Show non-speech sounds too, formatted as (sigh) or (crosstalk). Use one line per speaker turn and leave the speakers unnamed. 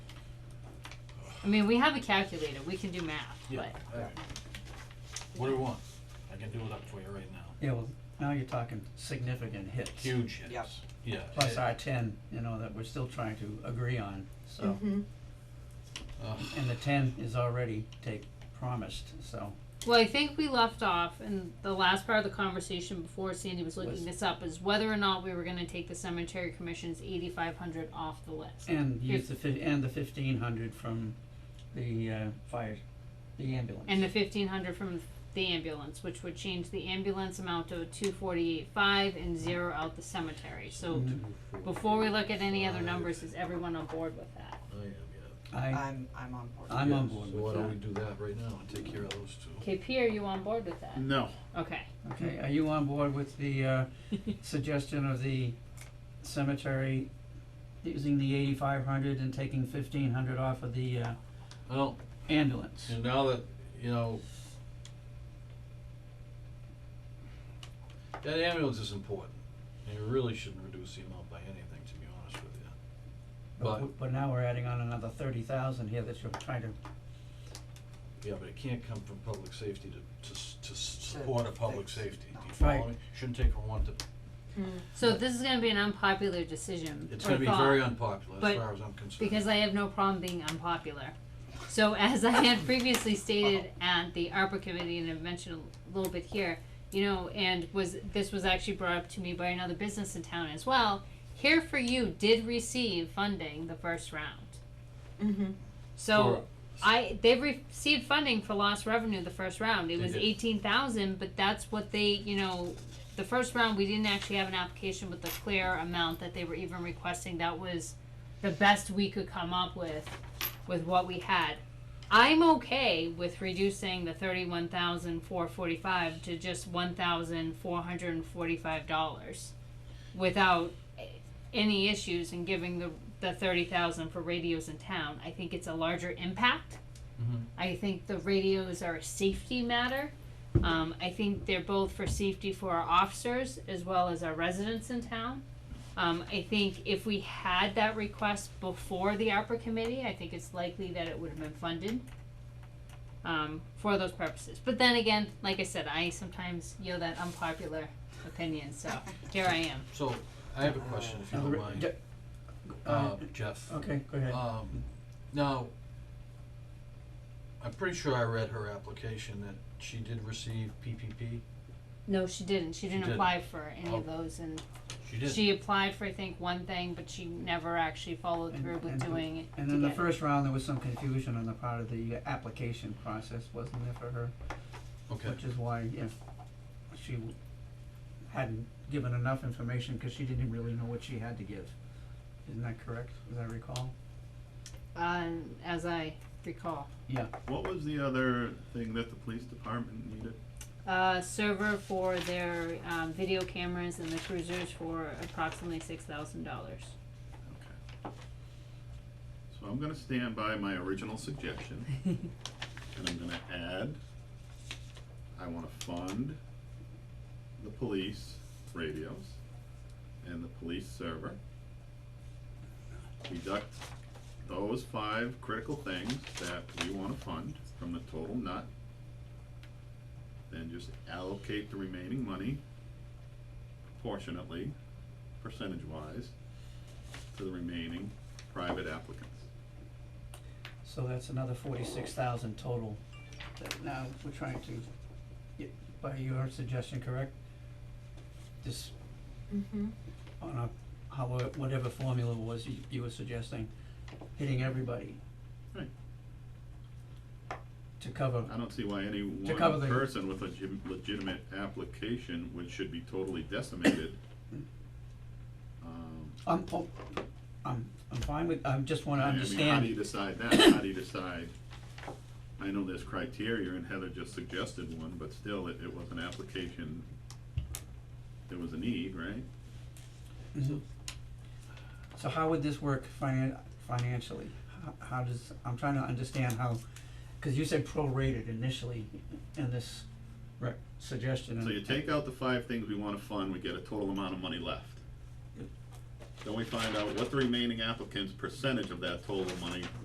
I mean, we have a calculator, we can do math,
Yeah,
but
alright. What do we want? I can do it up for you right now.
Yeah, well, now you're talking significant hits.
Huge
Yep.
hits, yeah.
Plus our ten, you know, that we're still trying to agree on, so,
Mm-hmm.
Ugh.
and the ten is already take, promised, so.
Well, I think we left off in the last part of the conversation before Sandy was looking
Was-
this up is whether or not we were gonna take the cemetery commission's eighty five hundred off the list.
And use the fif- and the fifteen hundred from the, uh, fire, the ambulance.
And the fifteen hundred from the ambulance, which would change the ambulance amount to two forty eight five and zero out the cemetery, so
Mm-hmm.
Mm,
before we look at any other numbers, is everyone on board with that?
I am, yeah.
I,
I'm, I'm on board.
I'm on
Yeah,
board
So why
with
don't we do
that.
that right now and take care of those two?
KP, are you on board with that?
No.
Okay,
Okay, are you on board with
(laughs)
the, uh, suggestion of the cemetery using the eighty-five hundred and taking fifteen hundred off of the, uh,
I don't,
ambulance?
and now that, you know, that ambulance is important, and you really shouldn't reduce the amount by anything, to be honest with you.
But,
But-
w- but now we're adding on another thirty thousand here that you're trying to,
Yeah, but it can't come from public safety to, to, s- to s- support a public
fix.
safety, do you follow
Right.
me? Shouldn't take from one to,
so this is gonna be an unpopular decision
it's
or
gonna be
thought.
very unpopular, as
But-
far as I'm concerned.
because I have no problem being unpopular. So (laughs) as I had previously stated at the ARPA committee, and I've mentioned a little bit here, you know, and was, this was actually brought up to me by another business in town as well, Here For You did receive funding the first round.
Mm-hmm.
So I, they received funding for lost revenue the first round, it
They
was
did.
eighteen thousand, but that's what they, you know, the first round, we didn't actually have an application with the clear amount that they were even requesting, that was the best we could come up with, with what we had. I'm okay with reducing the thirty-one thousand four forty-five to just one thousand four hundred and forty-five dollars without any issues and giving the, the thirty thousand for radios in town. I think it's a larger impact.
Mhm.
I think the radios are a safety matter. Um, I think they're both for safety for our officers as well as our residents in town. Um, I think if we had that request before the ARPA committee, I think it's likely that it would have been funded um, for those purposes. But then again, like I said, I sometimes yield that unpopular opinion, so here I am.
So, I have a question, if you
Now the
don't
re-
mind,
ju-
uh,
uh,
Jeff.
okay, go ahead.
Um, now, I'm pretty sure I read her application that she did receive PPP.
No, she didn't. She didn't
didn't.
apply for any of
Oh.
those, and
She did.
she applied for I think one thing, but she never actually followed
And-
through with
and-
doing it.
And
to
in the
get it.
first round, there was some confusion on the part of the application process, wasn't there for her?
Okay,
Which is why if she w- hadn't given enough information, cause she didn't really know what she had to give. Isn't that correct, as I recall?
Uh, as I recall,
Yeah,
What was the other thing that the police department needed?
uh, server for their um, video cameras and the cruisers for approximately six thousand dollars.
Okay. So I'm gonna stand by my original suggestion, and I'm gonna add, I wanna fund the police radios and the police server. Deduct those five critical things that we wanna fund from the total nut. Then just allocate the remaining money proportionately, percentage-wise, to the remaining private applicants.
so that's another forty-six thousand total that now we're trying to, get- by your suggestion, correct? This
Mm-hmm.
on a, how, whatever formula was you, you were suggesting, hitting everybody.
Right.
To cover,
I don't see why any one
cover the-
person with a legit- legitimate application would, should be totally decimated. Um,
I'm, oh, I'm, I'm fine with, I just wanna
I mean, How do you
understand,
decide that? How do you decide? I know there's criteria and Heather just suggested one, but still, it, it was an application. There was a need, right?
Mhm. so how would this work finan- financially? How, how does, I'm trying to understand how, cause you said prorated initially in this rec- suggestion and.
So you take out the five things we wanna fund, we get a total amount of money left. Then we find out what the remaining applicants' percentage of that total money